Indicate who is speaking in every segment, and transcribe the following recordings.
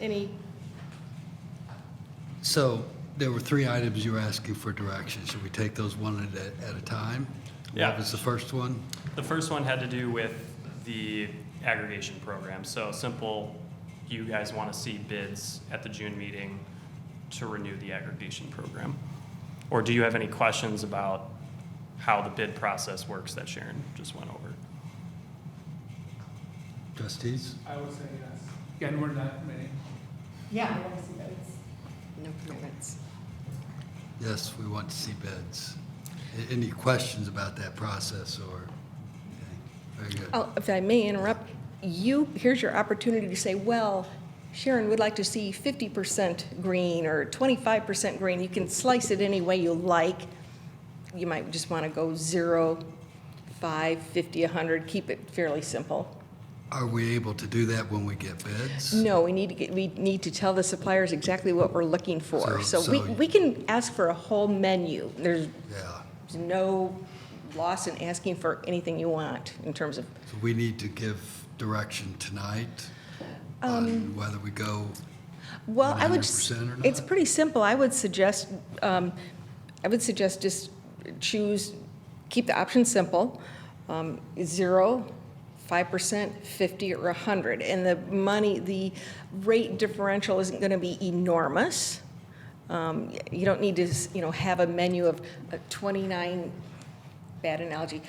Speaker 1: Any,
Speaker 2: So there were three items you were asking for direction. Should we take those one at a, at a time?
Speaker 3: Yeah.
Speaker 2: What was the first one?
Speaker 3: The first one had to do with the aggregation program. So simple, you guys want to see bids at the June meeting to renew the aggregation program? Or do you have any questions about how the bid process works that Sharon just went over?
Speaker 2: Trustees?
Speaker 4: I would say yes. Again, we're not many.
Speaker 5: Yeah, I want to see those.
Speaker 6: No commitments.
Speaker 2: Yes, we want to see bids. A- Any questions about that process or? okay, Very good.
Speaker 1: oh, if I may interrupt, you, here's your opportunity to say, well, Sharon would like to see 50% green or 25% green. You can slice it any way you like. You might just want to go zero, five, 50, 100, keep it fairly simple.
Speaker 2: Are we able to do that when we get bids?
Speaker 1: No, we need to get, we need to tell the suppliers exactly what we're looking for.
Speaker 2: So-
Speaker 1: So we,
Speaker 2: so-
Speaker 1: we can ask for a whole menu. There's
Speaker 2: Yeah,
Speaker 1: no loss in asking for anything you want in terms of
Speaker 2: so we need to give direction tonight on
Speaker 1: Um.
Speaker 2: whether we go,
Speaker 1: Well, I would, s-
Speaker 2: 100% or
Speaker 1: it's
Speaker 2: not?
Speaker 1: pretty simple. I would suggest, um, I would suggest just choose, keep the option simple, um, zero, 5%, 50, or 100. And the money, the rate differential isn't going to be enormous. Um, y- You don't need to, s- you know, have a menu of uh, 29, bad analogy,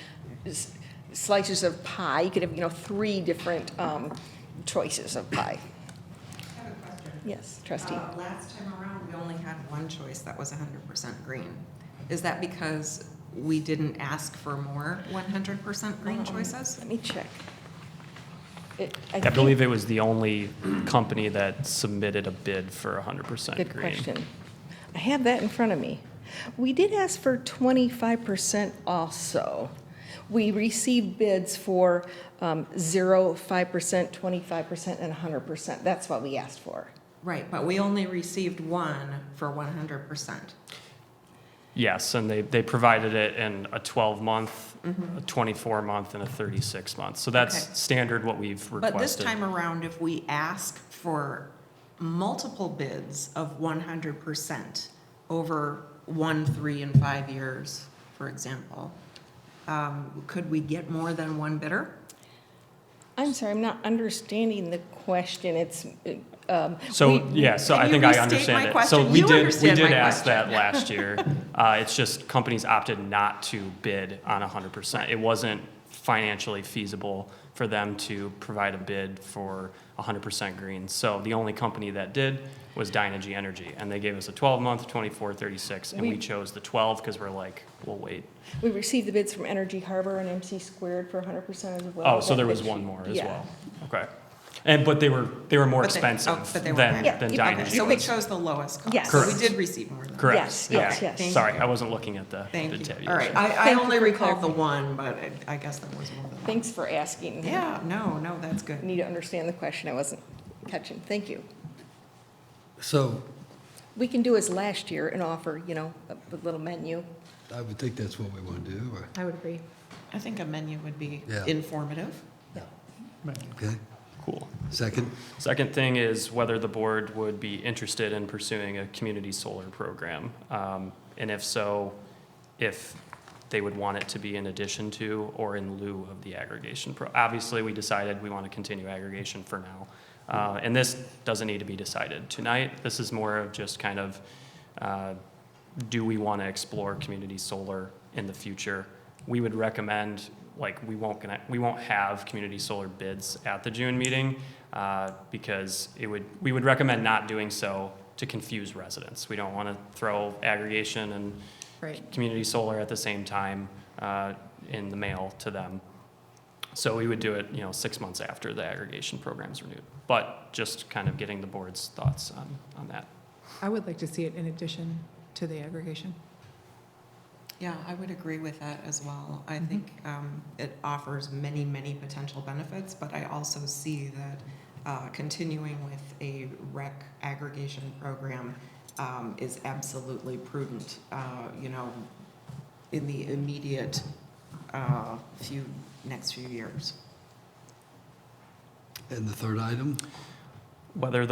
Speaker 1: s- slices of pie. You could have, you know, three different um, choices of pie.
Speaker 6: I have a question.
Speaker 1: Yes, trustee.
Speaker 6: Uh, Last time around, we only had one choice that was hundred percent green. Is that because we didn't ask for more one hundred percent green choices?
Speaker 1: Let me check. It-
Speaker 3: I
Speaker 1: think-
Speaker 3: believe it was the only company that submitted a bid for 100% green.
Speaker 1: Good question. I have that in front of me. We did ask for 25% also. We received bids for um, 0, 5%, 25%, and 100%. That's what we asked for.
Speaker 6: Right, but we only received one for one hundred percent.
Speaker 3: Yes, and they, they provided it in a 12-month,
Speaker 1: Mm-hmm.
Speaker 3: a 24-month, and a 36-month. So
Speaker 6: Okay.
Speaker 3: that's standard what we've requested.
Speaker 6: But this time around, if we ask for multiple bids of one hundred percent over one, three, and five years, for example, um, could we get more than one bidder?
Speaker 1: I'm sorry, I'm not understanding the question. It's, um,
Speaker 3: So,
Speaker 1: we-
Speaker 3: yeah, so
Speaker 6: Can
Speaker 3: I
Speaker 6: you
Speaker 3: think I
Speaker 6: restate
Speaker 3: understand
Speaker 6: my
Speaker 3: it. So
Speaker 6: question?
Speaker 3: we
Speaker 6: You
Speaker 3: did, we
Speaker 6: understand
Speaker 3: did
Speaker 6: my
Speaker 3: ask that
Speaker 6: question.
Speaker 3: last year. Uh, It's just companies opted not to bid on 100%. It wasn't financially feasible for them to provide a bid for 100% green. So the only company that did was Dynegy Energy, and they gave us a 12-month, 24, 36, and
Speaker 1: We-
Speaker 3: we chose the 12 because we're like, we'll wait.
Speaker 1: We received the bids from Energy Harbor and MC Squared for 100% as well.
Speaker 3: Oh, so
Speaker 1: That
Speaker 3: there was
Speaker 1: bid
Speaker 3: one
Speaker 1: sheet.
Speaker 3: more as
Speaker 1: Yeah.
Speaker 3: well. Okay. And, but they were, they were more
Speaker 6: But they- oh,
Speaker 3: expensive
Speaker 6: but they
Speaker 3: than,
Speaker 6: were
Speaker 3: than
Speaker 1: higher. Yeah,
Speaker 3: Dynegy.
Speaker 6: Okay, so we
Speaker 1: Yes.
Speaker 6: chose the lowest cost.
Speaker 1: Yes.
Speaker 6: So
Speaker 1: Correct.
Speaker 6: We did receive more than. that.
Speaker 3: Correct,
Speaker 1: Yes, yes,
Speaker 3: yeah.
Speaker 1: yes.
Speaker 3: Sorry, I wasn't looking at the
Speaker 6: Thank
Speaker 3: the
Speaker 6: you.
Speaker 3: tab.
Speaker 6: All right, I, I
Speaker 1: Thank you
Speaker 6: only
Speaker 1: for
Speaker 6: recalled the
Speaker 1: clarifying.
Speaker 6: one, but I, I guess there was more than one.
Speaker 1: Thanks for asking.
Speaker 6: Yeah, no, no, that's good.
Speaker 1: Need to understand the question. I wasn't catching. Thank you.
Speaker 2: so
Speaker 1: We can do as last year and offer, you know, a a little menu.
Speaker 2: I would think that's what we want to do, or,
Speaker 6: I would agree. I think a menu would be
Speaker 2: Yeah.
Speaker 6: informative.
Speaker 2: okay?
Speaker 3: Cool.
Speaker 2: Second?
Speaker 3: Second thing is whether the board would be interested in pursuing a community solar program. Um, And if so, if they would want it to be in addition to or in lieu of the aggregation. pro- Obviously, we decided we want to continue aggregation for now. Uh, And this doesn't need to be decided tonight. This is more of just kind of, uh, do we want to explore community solar in the future? We would recommend, like, we won't gonna, we won't have community solar bids at the June meeting uh, because it would, we would recommend not doing so to confuse residents. We don't want to throw aggregation and
Speaker 6: Right.
Speaker 3: community solar at the same time uh, in the mail to them. So we would do it, you know, six months after the aggregation program's renewed. But just kind of getting the board's thoughts on, on that.
Speaker 7: I would like to see it in addition to the aggregation.
Speaker 6: Yeah, I would agree with that as well. I think um, it offers many, many potential benefits, but I also see that uh, continuing with a rec aggregation program um, is absolutely prudent, uh, you know, in the immediate uh, few, next few years.
Speaker 2: And the third item?
Speaker 3: Whether